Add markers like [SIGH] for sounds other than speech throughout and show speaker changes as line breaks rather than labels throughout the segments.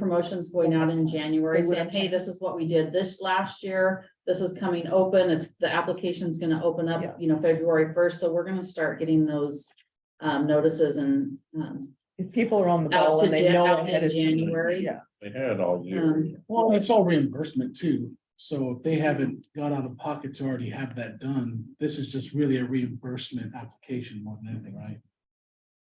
promotions going out in January
They would
saying,
have
hey,
checked.
this is what we did this last year. This is coming open. It's, the application's gonna open
Yeah.
up, you know, February first, so we're gonna start getting those um, notices and um,
If people are on the
Out
ball
to
and they
Jan-
know
out in
ahead of time.
January.
Yeah,
They had all year.
Um,
Well, it's all reimbursement too, so if they haven't got out of pocket to already have that done, this is just really a reimbursement application more than anything, right?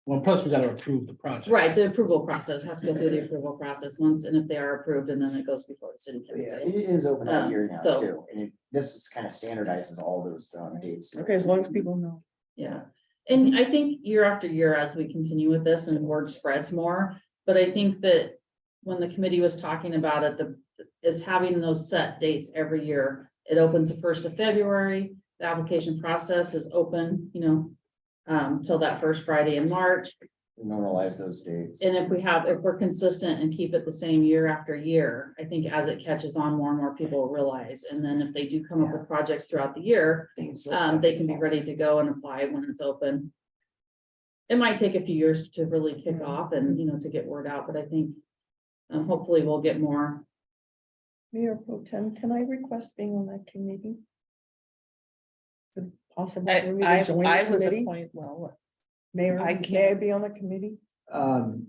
Well, plus we gotta approve the project.
right, the approval process has to go through the approval process once, and if they are approved, and then it goes before the city
Yeah,
council.
it is open
Um,
up here now
so-
too, and it- this is kind of standardizes all those um dates.
okay, as long as people know.
Yeah, and I think year after year, as we continue with this and word spreads more, but I think that when the committee was talking about it, the, is having those set dates every year. It opens the first of February, the application process is open, you know, um, till that first Friday in March.
Normalize those dates.
And if we have, if we're consistent and keep it the same year after year, I think as it catches on, more and more people will realize. And then if they do come up with projects throughout the year,
Things like
um,
that.
they can be ready to go and apply when it's open. It might take a few years to really kick off and, you know, to get word out, but I think um, hopefully we'll get more.
Mayor Pro Tem, can I request being on that committee? Is it Possible
I,
for me to join
I, I
the
was
committee?
appointed, well,
Mayor,
I
may I
can't.
be on the committee?
Um,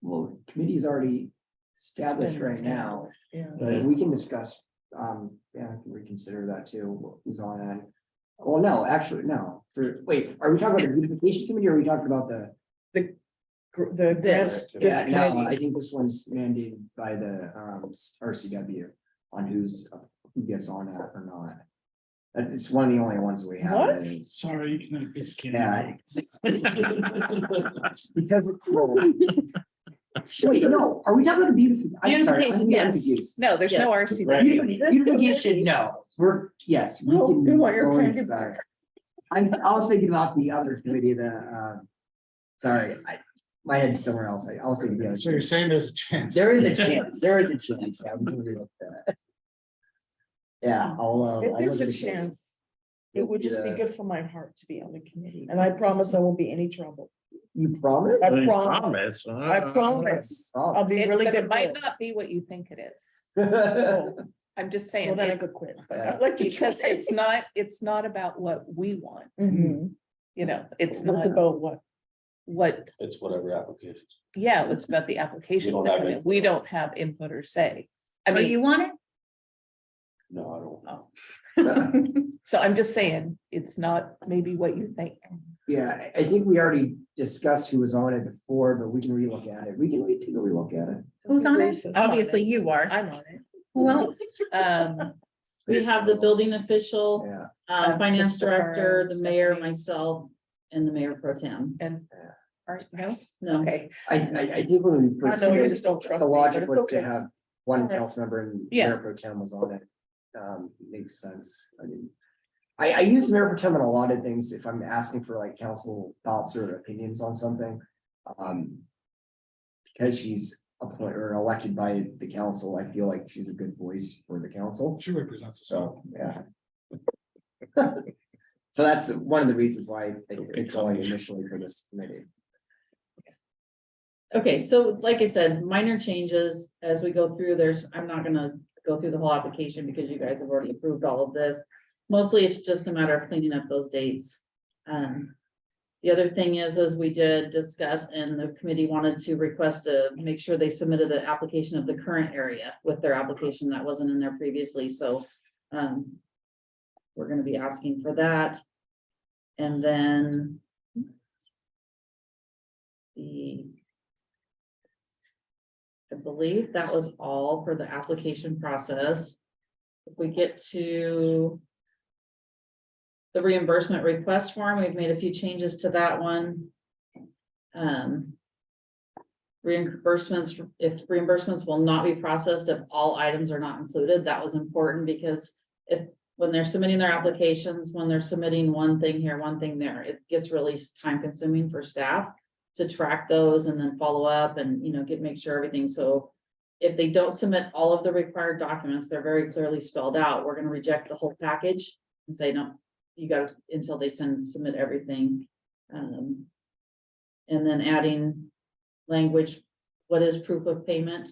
well, committee's already established right now,
Yeah.
but we can discuss, um, yeah, I can reconsider that too, who's on that. Well, no, actually, no, for, wait, are we talking about the beautification committee or are we talking about the?
Gr- The.
This.
grant- this
Yeah, no,
committee.
I think this one's mandated by the, um, RCW on who's, uh, who gets on that or not. Uh, It's one of the only ones we have.
What?
that is-
Sorry, you can, it's.
Yeah. [LAUGHS]
Because.
Wait, no, are we talking about the beauty? I'm sorry,
Beautification,
I'm
yes.
confused.
no, there's no RCW.
Beautification, no, we're, yes. we
No,
can
you want your
go
credit
inside.
back.
I'm, I was thinking about the other committee, the, uh, sorry, I, my head's somewhere else, I I was thinking the
So you're
other.
saying there's a chance? [LAUGHS]
There is a chance, there is a chance, yeah, we can relook that. Yeah, I'll, uh.
If
I
there's a
wasn't sure.
chance, it would just be
Yeah.
good for my heart to be on the committee, and I promise I won't be any trouble.
You
[LAUGHS]
promise?
I
They
promise,
promise, uh,
I promise, I'll
Oh.
be
It-
really
But
good.
it might
for it.
not be what you think it is.
Oh,
I'm just
Well,
saying,
then I
it-
could quit, but
Yeah.
I'd like to.
because
try.
it's not, it's not about what we want,
Mhm.
you know, it's
It's
not
about what?
what,
It's whatever applications.
yeah, it's about the application.
don't
that
have
come in.
any-
We don't have input or say. I
Oh,
Are
mean,
you on it?
No, I don't.
oh. so I'm just saying, it's not maybe what you think.
Yeah, I, I think we already discussed who was on it before, but we can relook at it, we can, we can relook at it.
Who's on it?
I'm on
Obviously
it.
you are.
I'm on it.
Who else?
Um,
We have the building official,
Yeah,
uh,
Uh,
finance
Mr.
director,
Burrows,
the mayor,
Stephanie.
myself, and the mayor pro tem.
and, are, no,
No,
okay,
I, I, I did when we.
I
first
know
did
you
it,
just don't trust
The
me, but
logic
it's
was to
okay.
have one
Okay.
council member and
Yeah.
Mayor Pro Tem was on it. Um, makes sense. I mean, I, I use Mayor Pro Tem on a lot of things if I'm asking for like council thoughts or opinions on something. Um. Because she's appointed or elected by the council, I feel like she's a good voice for the council,
She represents us. all.
so, yeah. [LAUGHS] So that's one of the reasons why I picked Holly initially for this committee.
okay, so like I said, minor changes as we go through, there's, I'm not gonna go through the whole application because you guys have already approved all of this. Mostly it's just a matter of cleaning up those dates. Um, the other thing is, is we did discuss and the committee wanted to request to make sure they submitted an application of the current area with their application that wasn't in there previously, so, um, we're gonna be asking for that. And then the I believe that was all for the application process. If we get to the reimbursement request form, we've made a few changes to that one. Um, reimbursements, if reimbursements will not be processed if all items are not included, that was important because if, when they're submitting their applications, when they're submitting one thing here, one thing there, it gets really time consuming for staff to track those and then follow up and, you know, get, make sure everything, so. If they don't submit all of the required documents, they're very clearly spelled out, we're gonna reject the whole package and say, no, you gotta, until they send, submit everything. Um. And then adding language, what is proof of payment?